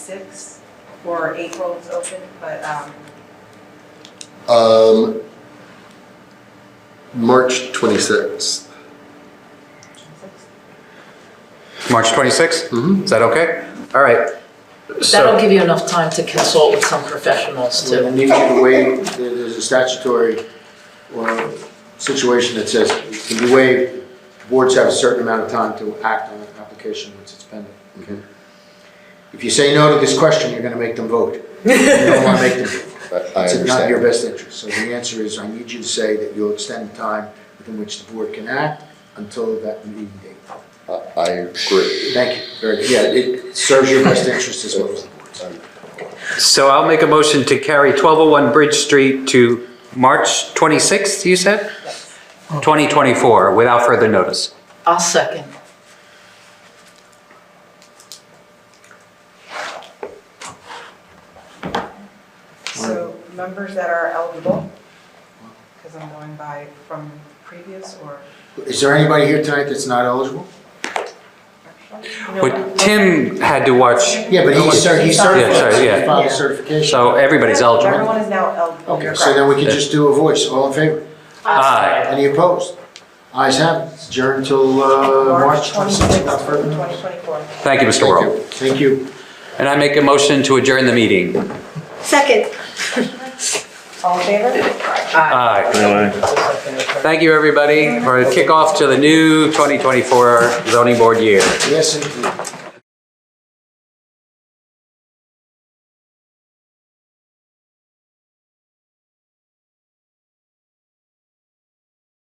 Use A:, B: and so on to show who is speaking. A: six or April is open, but um,
B: Um, March 26th.
C: March 26th?
B: Mhm.
D: Mm-hmm.
C: Is that okay? All right.
E: That'll
C: So,
E: give you enough time to consult with some professionals
D: So I
E: too.
D: need you to waive, there- there's a statutory or situation that says it can be waived. Boards have a certain amount of time to act on an application once it's pending. Okay. If you say no to this question, you're gonna make them vote. You don't wanna make them. vote.
B: I I
D: It's not in your
B: understand.
D: best interest. So the answer is, I need you to say that you'll extend the time within which the board can act until that meeting date.
B: I I agree.
D: Thank you. Very good. Yeah, it serves your best interest as well as the board's.
C: so I'll make a motion to carry 1201 Bridge Street to March 26th, you said? 2024, without further notice.
E: I'll second.
A: so members that are eligible, because I'm going by from previous or
D: Is there anybody here tonight that's not eligible?
C: But Tim had to watch,
D: Yeah, but he's cer- he's
A: Yeah, sorry,
D: certified,
C: yeah.
D: he filed a
A: Yeah.
D: certification.
C: so everybody's eligible.
A: Everyone is now eligible.
D: Okay, so then we can just do a voice, all in favor?
C: Aye.
D: Any opposed? Ayes have, it. adjourn until, uh, March
A: March twenty-sixth,
D: twenty-sixth, not further
A: twenty
D: notice.
A: twenty-four.
C: Thank you, Mr.
D: Thank
C: World.
D: you. Thank you.
C: And I make a motion to adjourn the meeting.
F: Second.
A: All in favor?
C: Aye. Thank you, everybody, for a kickoff to the new 2024 zoning board year.
D: Yes, indeed.